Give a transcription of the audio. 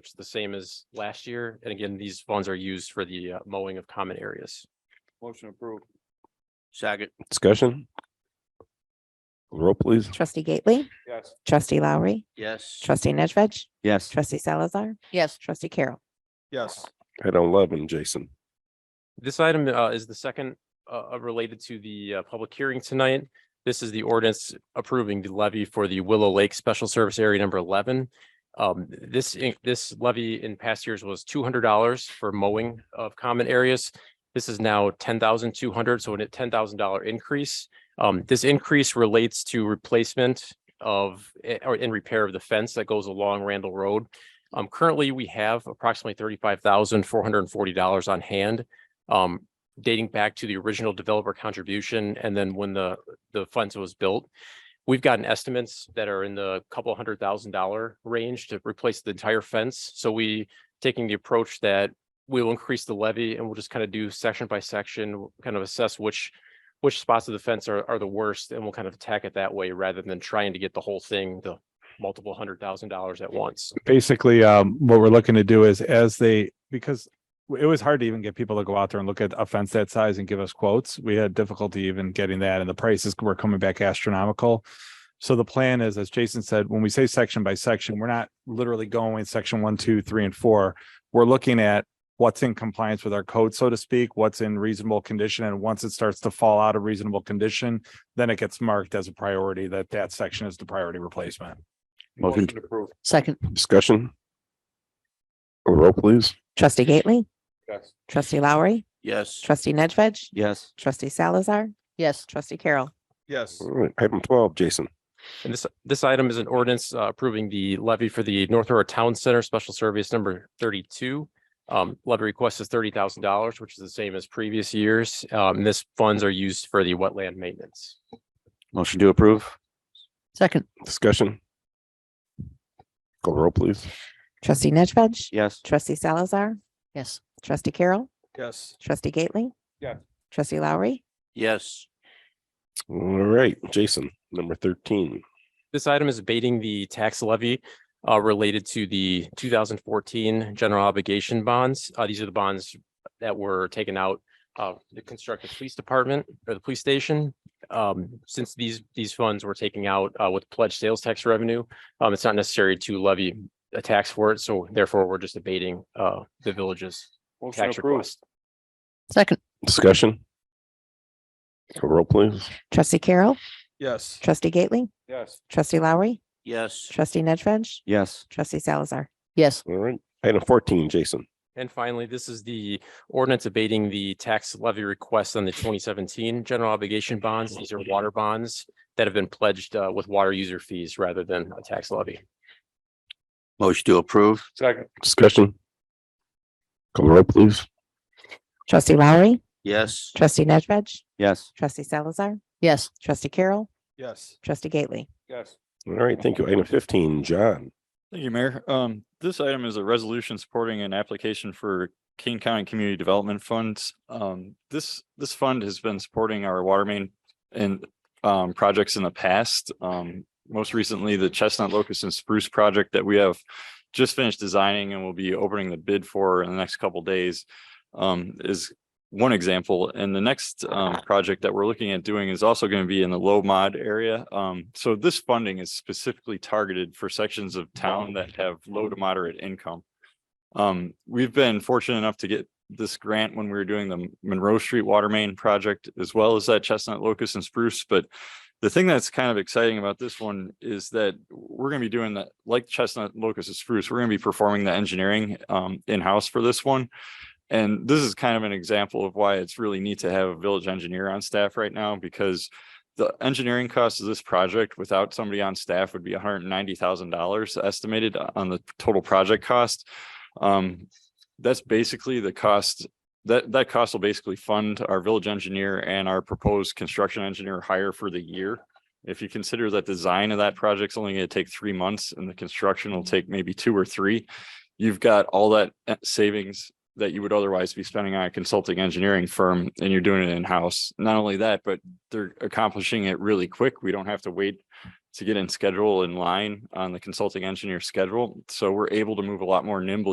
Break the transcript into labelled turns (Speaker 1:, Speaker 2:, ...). Speaker 1: which is the same as last year. And again, these funds are used for the uh, mowing of common areas.
Speaker 2: Motion approved.
Speaker 3: Second,
Speaker 4: Discussion? Roll please.
Speaker 5: Trustee Gately,
Speaker 2: Yes.
Speaker 5: trustee Lowry,
Speaker 3: yes.
Speaker 5: trustee Nedved,
Speaker 3: Yes.
Speaker 5: trustee Salazar,
Speaker 6: yes,
Speaker 5: trustee Carroll.
Speaker 2: Yes.
Speaker 4: Item eleven, Jason.
Speaker 1: This item uh, is the second uh, uh, related to the uh, public hearing tonight. This is the ordinance approving the levy for the Willow Lake Special Service Area Number 11. Um, This, in- this levy in past years was $200 for mowing of common areas. This is now $10,200, so a $10,000 increase. Um, This increase relates to replacement of, eh, or in repair of the fence that goes along Randall Road. Um, Currently, we have approximately $35,440 on hand um, dating back to the original developer contribution and then when the, the funds was built. We've gotten estimates that are in the couple hundred thousand dollar range to replace the entire fence. So we taking the approach that we will increase the levy and we'll just kind of do section by section, kind of assess which, which spots of the fence are, are the worst and we'll kind of attack it that way rather than trying to get the whole thing, the multiple hundred thousand dollars at once.
Speaker 7: basically, um, what we're looking to do is as they, because it was hard to even get people to go out there and look at a fence that size and give us quotes. We had difficulty even getting that and the prices were coming back astronomical. So the plan is, as Jason said, when we say section by section, we're not literally going section one, two, three, and four. We're looking at what's in compliance with our code, so to speak, what's in reasonable condition. And once it starts to fall out of reasonable condition, then it gets marked as a priority that that section is the priority replacement.
Speaker 3: Motion.
Speaker 2: approved.
Speaker 6: second,
Speaker 4: Discussion? Roll please.
Speaker 5: Trustee Gately,
Speaker 2: Yes.
Speaker 5: trustee Lowry,
Speaker 3: Yes.
Speaker 5: trustee Nedved,
Speaker 3: Yes.
Speaker 5: trustee Salazar,
Speaker 6: yes,
Speaker 5: trustee Carroll.
Speaker 2: Yes.
Speaker 4: All right, item twelve, Jason.
Speaker 1: And this, this item is an ordinance uh, approving the levy for the North River Town Center Special Service Number thirty-two. Um, levy request is thirty thousand dollars, which is the same as previous years. Um, and this funds are used for the wetland maintenance.
Speaker 3: Motion to approve?
Speaker 6: second,
Speaker 4: Discussion? Call roll please.
Speaker 5: Trustee Nedved,
Speaker 3: Yes.
Speaker 5: trustee Salazar,
Speaker 6: yes,
Speaker 5: trustee Carroll,
Speaker 2: Yes.
Speaker 5: trustee Gately.
Speaker 2: Yes.
Speaker 5: Trustee Lowry,
Speaker 3: Yes.
Speaker 4: All right, Jason, number thirteen.
Speaker 1: This item is abating the tax levy uh, related to the two thousand fourteen general obligation bonds. Uh, These are the bonds that were taken out uh, to construct the police department or the police station. Um, Since these, these funds were taken out uh, with pledged sales tax revenue, um, it's not necessary to levy a tax for it. So therefore, we're just abating uh, the village's
Speaker 2: Motion
Speaker 1: tax
Speaker 2: approved.
Speaker 1: request.
Speaker 6: second,
Speaker 4: Discussion? Call roll please.
Speaker 5: trustee Carroll,
Speaker 2: Yes.
Speaker 5: trustee Gately,
Speaker 2: Yes.
Speaker 5: trustee Lowry,
Speaker 3: Yes.
Speaker 5: trustee Nedved,
Speaker 3: Yes.
Speaker 5: trustee Salazar.
Speaker 6: yes,
Speaker 4: All right, item fourteen, Jason.
Speaker 1: And finally, this is the ordinance abating the tax levy request on the twenty seventeen general obligation bonds. These are water bonds that have been pledged uh, with water user fees rather than a tax levy.
Speaker 3: Motion to approve?
Speaker 2: Second.
Speaker 4: Discussion? Call roll please.
Speaker 5: Trustee Lowry,
Speaker 3: Yes.
Speaker 5: trustee Nedved,
Speaker 3: Yes.
Speaker 5: trustee Salazar,
Speaker 6: yes,
Speaker 5: trustee Carroll,
Speaker 2: Yes.
Speaker 5: trustee Gately.
Speaker 2: Yes.
Speaker 4: All right, thank you. Item fifteen, John.
Speaker 8: Thank you, Mayor. Um, this item is a resolution supporting an application for King County Community Development Funds. Um, this, this fund has been supporting our water main and, um, projects in the past. Um, most recently, the Chestnut Locust and Spruce project that we have just finished designing and will be opening the bid for in the next couple days. Um, is one example. And the next, um, project that we're looking at doing is also going to be in the low mod area. Um, so this funding is specifically targeted for sections of town that have low to moderate income. Um, we've been fortunate enough to get this grant when we were doing the Monroe Street Water Main project, as well as that Chestnut Locust and Spruce, but the thing that's kind of exciting about this one is that we're gonna be doing that, like Chestnut Locust and Spruce, we're gonna be performing the engineering, um, in-house for this one. And this is kind of an example of why it's really neat to have a village engineer on staff right now because the engineering cost of this project without somebody on staff would be hundred and ninety thousand dollars estimated on the total project cost. Um, that's basically the cost, that, that cost will basically fund our village engineer and our proposed construction engineer hire for the year. If you consider that design of that project's only gonna take three months and the construction will take maybe two or three, you've got all that uh, savings that you would otherwise be spending on a consulting engineering firm and you're doing it in-house. Not only that, but they're accomplishing it really quick. We don't have to wait to get in schedule in line on the consulting engineer schedule. So we're able to move a lot more nimbly